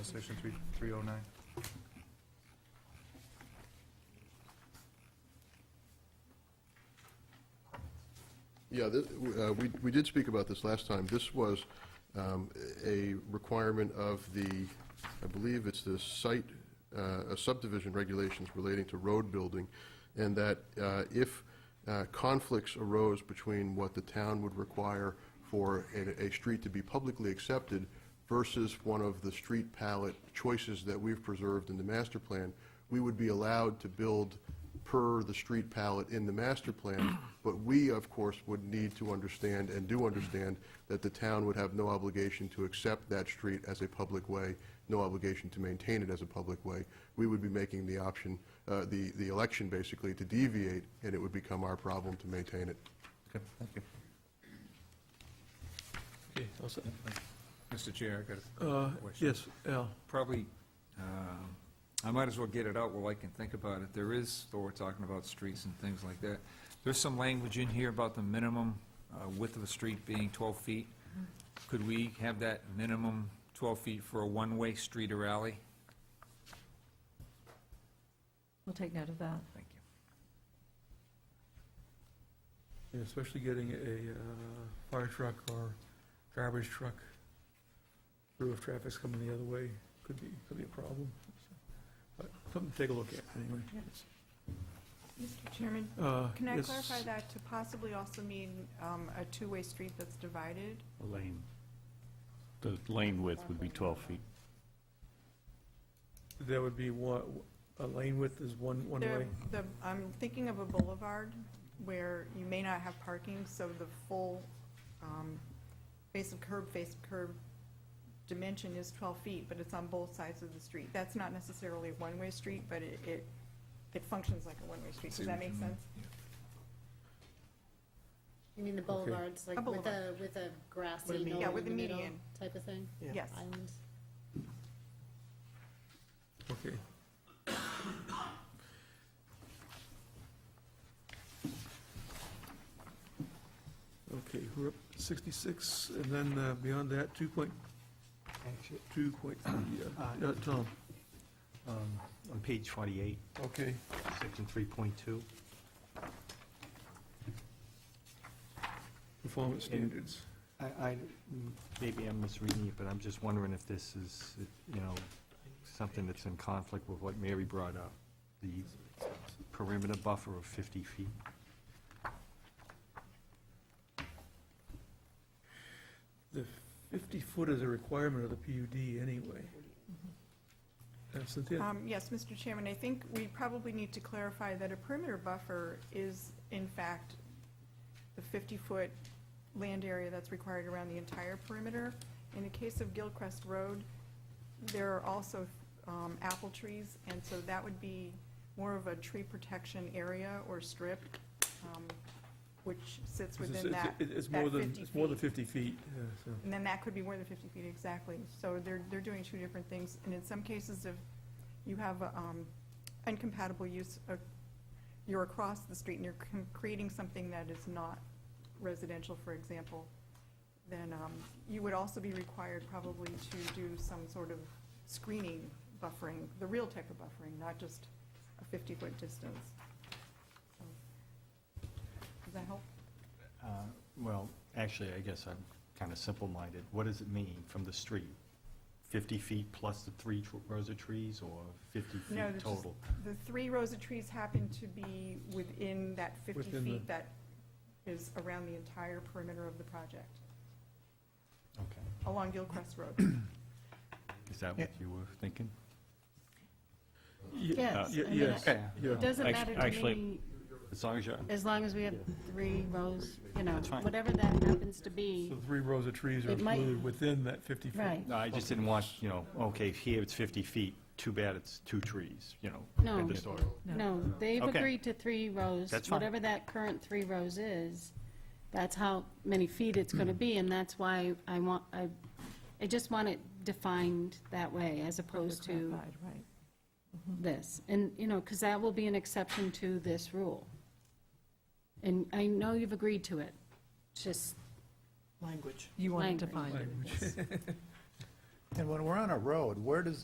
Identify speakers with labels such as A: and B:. A: Section three, three oh nine.
B: Yeah, this, uh, we, we did speak about this last time. This was, um, a requirement of the, I believe it's the site, uh, subdivision regulations relating to road building, and that, uh, if, uh, conflicts arose between what the town would require for a, a street to be publicly accepted versus one of the street palette choices that we've preserved in the master plan, we would be allowed to build per the street palette in the master plan, but we, of course, would need to understand and do understand that the town would have no obligation to accept that street as a public way, no obligation to maintain it as a public way. We would be making the option, uh, the, the election basically to deviate, and it would become our problem to maintain it.
A: Okay, thank you.
C: Okay, all set.
D: Mr. Chair, I got
C: Uh,
D: a question.
C: Yes, Al,
D: Probably, um, I might as well get it out while I can think about it. There is, though we're talking about streets and things like that, there's some language in here about the minimum uh, width of a street being 12 feet. Could we have that minimum 12 feet for a one-way street or alley?
E: We'll take note of that.
D: Thank you.
C: Yeah, especially getting a uh, fire truck or garbage truck through if traffic's coming the other way, could be, could be a problem. But Something to take a look at, anyway.
F: Mr. Chairman,
C: Uh,
F: can I
C: yes,
F: clarify that to possibly also mean um, a two-way street that's divided?
G: A lane. The lane width would be 12 feet.
C: There would be one, a lane width is one, one
F: There-
C: way.
F: the- I'm thinking of a boulevard where you may not have parking, so the full um, face of curb, face of curb dimension is 12 feet, but it's on both sides of the street. That's not necessarily a one-way street, but it, it it functions like a one-way street.
D: See
F: Does that
D: what
F: make
D: you mean.
F: sense?
H: You mean the boulevards, like
F: A
H: with a,
F: boulevard.
H: with a
F: With a
H: grassy
F: median. Yeah,
H: knoll
F: with
H: in
F: a
H: the middle
F: median.
H: type of thing?
C: Yeah.
F: Yes.
H: Island.
C: Okay. Okay, we're up to 66, and then uh, beyond that, 2.2,
I: Actually,
C: yeah, uh, Tom,
I: um, on page 48,
C: okay.
I: section 3.2,
C: Performance standards.
I: I, I- mm, m- maybe I'm misreading it, but I'm just wondering if this is, you know, something that's in conflict with what Mary brought up, the perimeter buffer of 50 feet.
C: The 50-foot is a requirement of the PUD anyway.
E: Mm-hmm.
C: Uh, Cynthia,
F: Um, Yes, Mr. Chairman, I think we probably need to clarify that a perimeter buffer is in fact the 50-foot land area that's required around the entire perimeter. In the case of Gilcrest Road, there are also um, apple trees, and so that would be more of a tree protection area or strip, um, which sits
C: it's-
F: within
C: it's-
F: that.
C: it- It's more
F: that
C: than,
F: 50
C: it's more than
F: feet.
C: 50 feet, yeah, so.
F: And then that could be more than 50 feet, exactly. So they're, they're doing two different things. And in some cases, if you have um, incompatible use, of- you're across the street and you're com- creating something that is not residential, for example, then um, you would also be required probably to do some sort of screening buffering, the real type of buffering, not just a 50-foot distance. So, Does that help?
I: Uh, Well, actually, I guess I'm kind of simple-minded. What does it mean from the street? 50 feet plus the three tr- rows of trees, or 50
F: No,
I: feet
F: that's just-
I: total?
F: The three rows of trees happen to be within that 50
C: Within the-
F: feet that is around the entire perimeter of the project,
I: Okay.
F: along Gilcrest Road.
I: Is that what you were thinking?
C: Ye-
H: Yes,
C: ye-
H: I mean,
C: Yes,
I: Okay.
C: yeah.
H: It doesn't
G: Act-
H: matter to
G: actually-
H: me,
I: As long as you're,
H: as long as we have three rows, you know,
I: That's fine.
H: whatever that happens to be.
C: So three rows of trees are
H: It might-
C: included within that 50 foot.
H: Right.
I: no, I just didn't want, you know, okay, here it's 50 feet, too bad it's two trees, you know,
H: No.
I: end of story.
H: No, they've
I: Okay.
H: agreed to three rows.
I: That's fine.
H: Whatever that current three rows is, that's how many feet it's going to be, and that's why I want, I, I just want it defined that way, as opposed to
E: Clarified, Right. Mm-hmm.
H: this, and, you know, because that will be an exception to this rule. And I know you've agreed to it, just
E: You want it defined.
C: Language.
I: And when we're on a road, where does